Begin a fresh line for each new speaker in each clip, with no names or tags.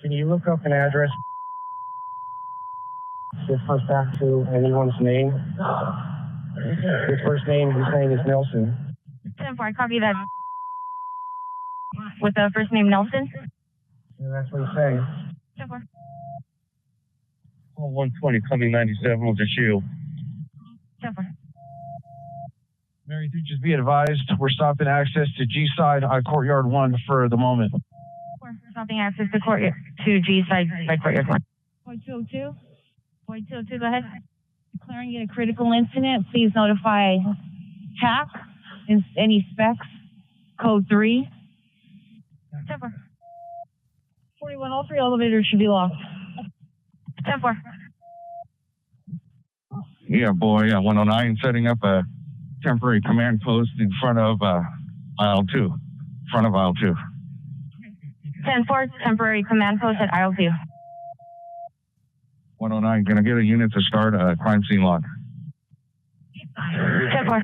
Can you look up an address? Refers back to anyone's name. His first name, his name is Nelson.
Ten four, copy that. With the first name Nelson.
And that's what he's saying.
Ten four.
Call 120, coming 97, will just you.
Ten four.
Mary, do just be advised, we're stopping access to G side I courtyard one for the moment.
Four. Stopping access to court to G side by courtyard one. Point two oh two. Point two oh two. Go ahead. Declaring it a critical incident. Please notify TAC and any specs. Code three. Ten four. Forty-one. All three elevators should be locked. Ten four.
Yeah, boy, uh, 109, setting up a temporary command post in front of uh, aisle two, front of aisle two.
Ten four. Temporary command post at aisle two.
109, gonna get a unit to start a crime scene lock.
Ten four.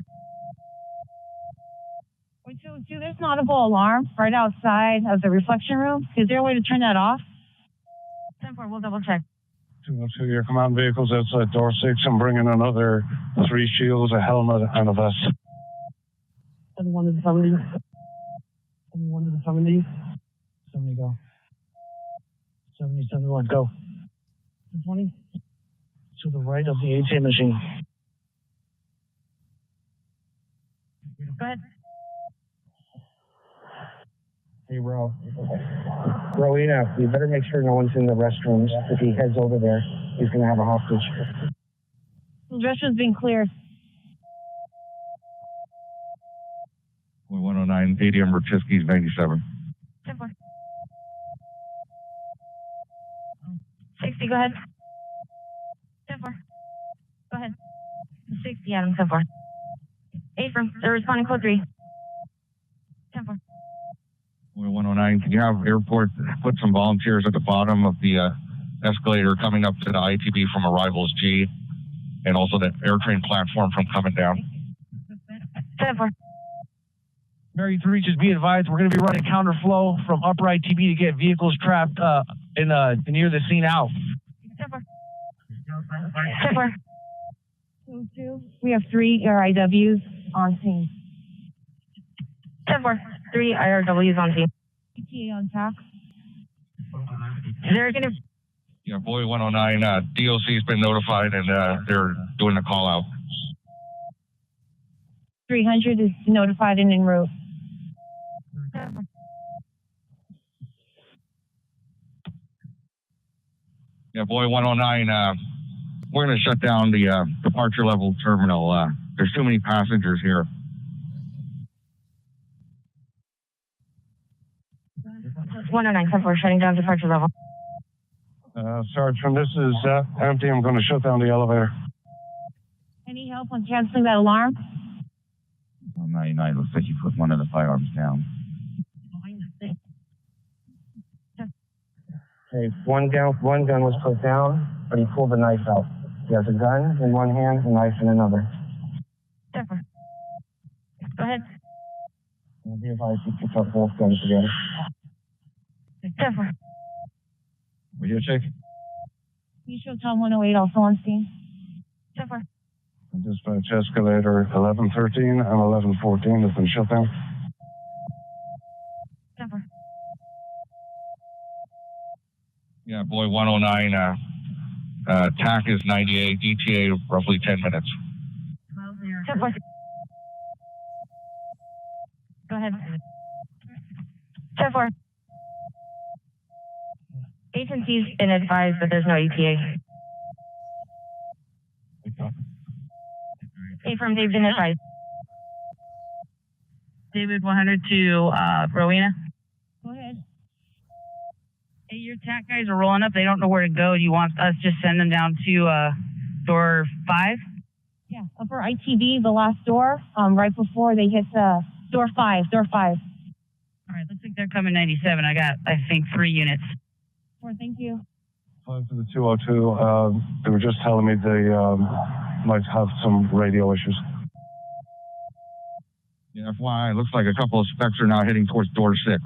Point two oh two. There's an audible alarm right outside of the reflection room. Is there a way to turn that off? Ten four. We'll double check.
202, your command vehicles outside door six. I'm bringing another three shields, a helmet, and a vest.
Seven one to the seventy. Seven one to the seventy. Seventy go. Seventy seven one go. Twenty. To the right of the ATM machine.
Go ahead.
Hey, Ro. Rowena, you better make sure no one's in the restrooms. If he heads over there, he's gonna have a hostage.
Restroom's been cleared.
Boy, 109, ADM Rachiski's 97.
Ten four. Sixty. Go ahead. Ten four. Go ahead. Sixty. Adam. Ten four. Eight from. They're responding code three. Ten four.
Boy, 109, can you have airport put some volunteers at the bottom of the uh, escalator coming up to the ITB from arrivals G and also the airtrain platform from coming down?
Ten four.
Mary three, just be advised, we're gonna be running counterflow from upright TB to get vehicles trapped uh, in uh, near the scene out.
Ten four. Ten four. Two two. We have three RIWs on scene. Ten four. Three IRWs on scene. ETA on tax. They're gonna
Yeah, boy, 109, uh, DOC's been notified and uh, they're doing the call out.
three hundred is notified and en route.
Yeah, boy, 109, uh, we're gonna shut down the uh, departure level terminal. Uh, there's too many passengers here.
One oh nine ten four shutting down departure level.
Uh, Sergeant, this is uh, empty. I'm gonna shut down the elevator.
Any help on canceling that alarm?
199, looks like you put one of the firearms down.
Okay, one down, one gun was put down, but he pulled the knife out. He has a gun in one hand, a knife in another.
Ten four. Go ahead.
And be advised, he picked up both guns together.
Ten four.
Video check?
You show Tom one oh eight also on scene. Ten four.
Dispatch escalator 1113 and 1114 has been shut down.
Ten four.
Yeah, boy, 109, uh, uh, TAC is 98, ETA roughly 10 minutes.
Ten four. Go ahead. Ten four. Agencies and advise that there's no E ETA. Affirm, they've been advised.
David 100 to uh, Rowena.
Go ahead.
Hey, your TAC guys are rolling up. They don't know where to go. Do you want us to send them down to uh, door five?
Yeah, upper ITV, the last door, um, right before they hit the door five, door five.
All right, looks like they're coming 97. I got, I think, three units.
Four, thank you.
Five to the 202. Um, they were just telling me they um, might have some radio issues.
Yeah, FYI, looks like a couple of specs are now heading towards door six.